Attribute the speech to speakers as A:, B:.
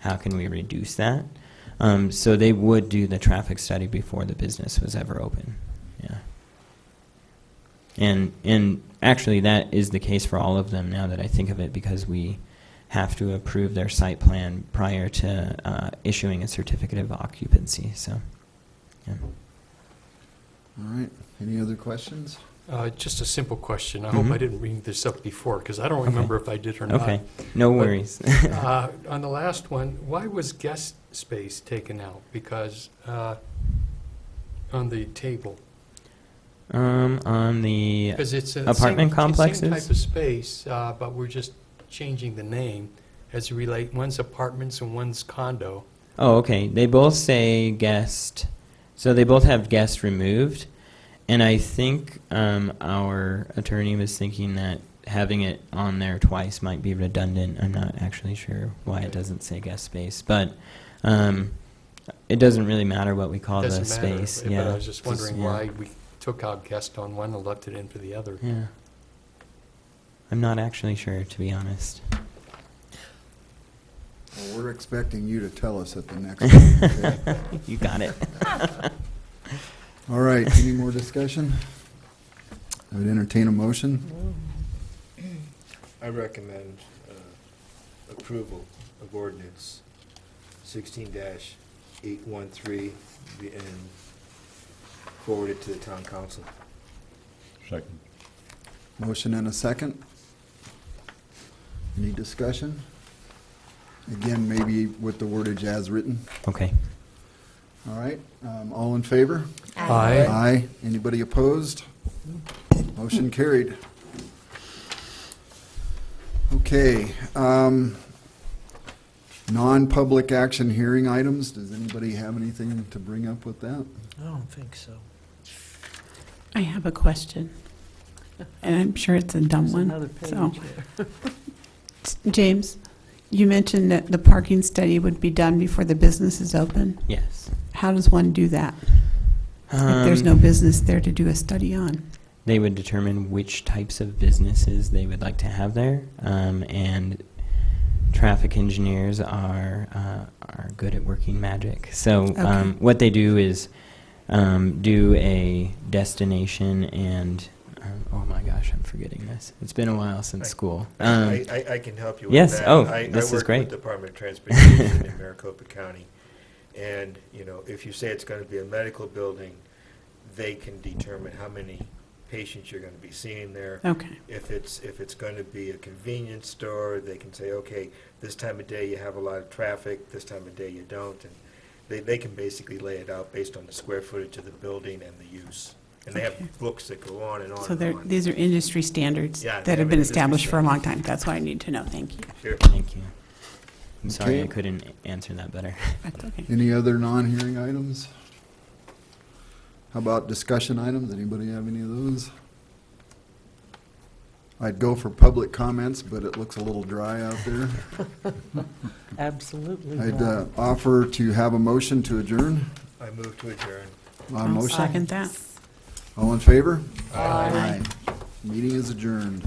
A: how can we reduce that? Um, so they would do the traffic study before the business was ever open. Yeah. And and actually that is the case for all of them now that I think of it because we have to approve their site plan prior to uh, issuing a certificate of occupancy. So yeah.
B: All right, any other questions?
C: Uh, Just a simple question. I hope I
A: Mhm.
C: didn't bring this up before, because I don't
A: Okay.
C: remember if I did or not.
A: Okay. No
C: But-
A: worries.
C: Uh, On the last one, why was guest space taken out? Because uh, on the table,
A: um on the
C: because it's a. same-
A: Apartment
C: it's Same
A: complexes?
C: type of space, uh, but we're just changing the name as you relate, one's apartments and one's condo.
A: Oh, okay. They both say guest, so they both have guest removed, and I think um, our attorney was thinking that having it on there twice might be redundant. I'm not actually sure why it doesn't say guest space, but um, it doesn't really matter what we call the
C: Doesn't matter,
A: space.
C: but
A: yeah,
C: I was just wondering
A: yeah.
C: why we took out guest on one and left it in for the other.
A: Yeah, I'm not actually sure to be honest.
B: Well, we're expecting you to tell us at the next meeting. okay?
A: you got it.
B: All right, any more discussion? I would entertain a motion.
D: I recommend uh, approval of ordinance sixteen eight one three and forward it to the town council.
E: Second.
B: Motion and a second. Any discussion? Again, maybe with the wordage as written.
A: Okay.
B: All right, um, all in favor?
C: Aye.
B: Aye. Anybody opposed? Motion carried. Okay, um, non-public action hearing items. Does anybody have anything to bring up with that?
F: I don't think so.
G: I have a question, and I'm sure it's a dumb
F: There's
G: one.
F: another
G: so-
F: page there.
G: James, you mentioned that the parking study would be done before the business is open.
A: Yes.
G: How does one do that? If there's
A: Um,
G: no business there to do a study on?
A: they would determine which types of businesses they would like to have there, um, and traffic engineers are uh, are good at working magic. So
G: Okay.
A: um, what they do is um, do a destination and um, oh my gosh, I'm forgetting this. It's been a while since
D: Right.
A: school. Um,
D: I, I- I can help you with that.
A: yes, oh,
D: I- I
A: this is
D: work
A: great.
D: with Department of Transportation in Maricopa County. And, you know, if you say it's going to be a medical building, they can determine how many patients you're going to be seeing there.
G: Okay,
D: If it's, if it's going to be a convenience store, they can say, okay, this time of day you have a lot of traffic, this time of day you don't. And they, they can basically lay it out based on the square footage of the building and the use. And they
G: Okay.
D: have books that go on and on
G: so there,
D: and on.
G: these are industry standards
D: Yeah,
G: that
D: they
G: have
D: have
G: been
D: industry
G: established for a long time. That's what I need to know, thank you.
D: Sure.
A: thank you. I'm sorry I
B: Okay.
A: couldn't answer that better.
G: That's okay.
B: Any other non-hearing items? How about discussion items? Anybody have any of those? I'd go for public comments, but it looks a little dry out there.
F: Absolutely
B: I'd
F: not.
B: uh, offer to have a motion to adjourn.
D: I move to adjourn.
B: Uh,
G: I'll
B: Motion?
G: Second that.
B: All in favor?
G: Aye.
B: Meeting is adjourned.